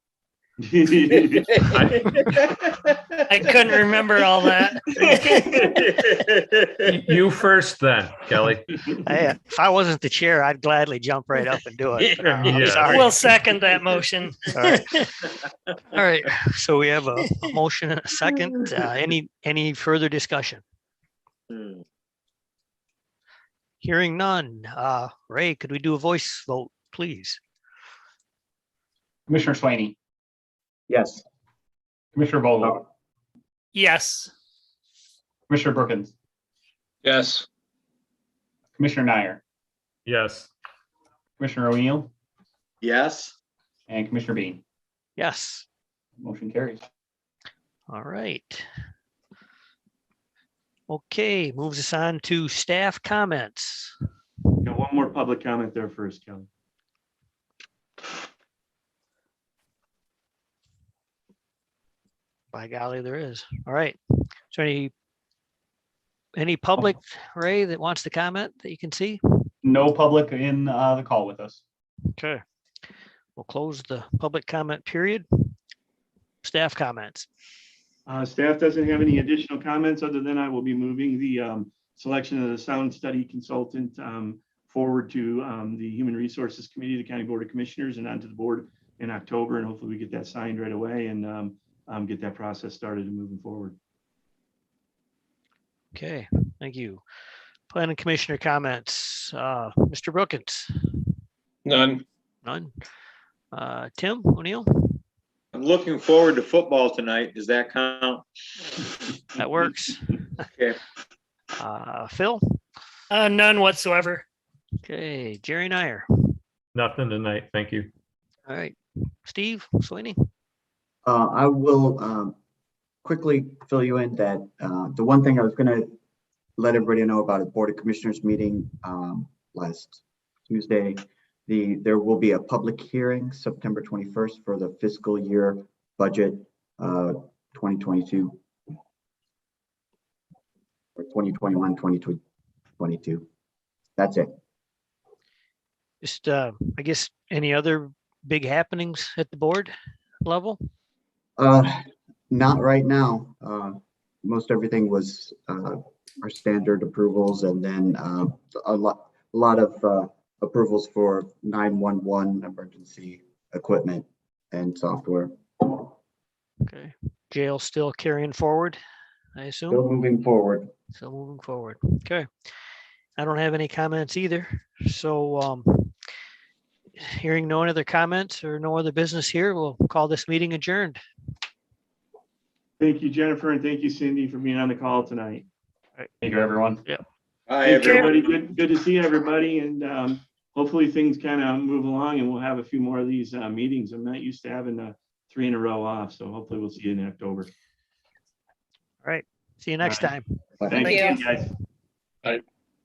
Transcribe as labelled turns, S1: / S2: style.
S1: I couldn't remember all that.
S2: Y- You first then, Kelly.
S3: Hey, if I wasn't the chair, I'd gladly jump right up and do it.
S2: Yeah.
S3: I'm sorry.
S1: We'll second that motion.
S3: All right. All right. So we have a, a motion and a second. Uh, any, any further discussion? Hearing none. Uh, Ray, could we do a voice vote, please?
S4: Commissioner Slaney,
S5: Yes.
S4: Commissioner Vogel,
S1: Yes.
S4: Commissioner Brookins,
S5: Yes.
S4: Commissioner Nyer,
S2: Yes.
S4: Commissioner O'Neill,
S5: Yes.
S4: and Commissioner Bean.
S3: Yes.
S4: Motion carries.
S3: All right. Okay, moves us on to staff comments.
S6: Got one more public comment there first, Kelly.
S3: By golly, there is. All right. Is there any, any public, Ray, that wants to comment that you can see?
S4: No public in uh, the call with us.
S3: Okay. We'll close the public comment period. Staff comments.
S6: Uh, staff doesn't have any additional comments other than I will be moving the, um, selection of the sound study consultant, um, forward to, um, the Human Resources Committee, the County Board of Commissioners and onto the board in October. And hopefully we get that signed right away and, um, um, get that process started and moving forward.
S3: Okay, thank you. Planning Commissioner comments. Uh, Mr. Brookins,
S5: None.
S3: none. Uh, Tim O'Neill,
S5: I'm looking forward to football tonight. Does that count?
S3: that works.
S5: Okay.
S3: Uh, Phil,
S1: Uh, none whatsoever.
S3: okay, Jerry Nyer,
S2: Nothing tonight. Thank you.
S3: all right, Steve Sweeney,
S7: Uh, I will, um, quickly fill you in that, uh, the one thing I was gonna let everybody know about a Board of Commissioners meeting, um, last Tuesday. The, there will be a public hearing September twenty-first for the fiscal year budget, uh, twenty twenty-two. Or 2021-2022. That's it.
S3: just, uh, I guess, any other big happenings at the board level?
S7: Uh, not right now. Uh, most everything was, uh, our standard approvals and then, uh, a lot, a lot of, uh, approvals for nine-one-one emergency equipment and software.
S3: Okay, jail still carrying forward, I assume?
S7: Still moving forward.
S3: So moving forward, okay. I don't have any comments either, so um. Hearing no other comments or no other business here, we'll call this meeting adjourned.
S6: Thank you, Jennifer, and thank you, Cindy, for being on the call tonight.
S4: Thank you, everyone.
S5: Hi,
S6: Thank you,
S5: everybody.
S6: everybody. Good, good to see everybody and, um, hopefully things kind of move along and we'll have a few more of these, uh, meetings. I'm not used to having, uh, three in a row off, so hopefully we'll see you in October.
S3: See you next
S6: Right.
S3: time.
S6: Thank you, guys.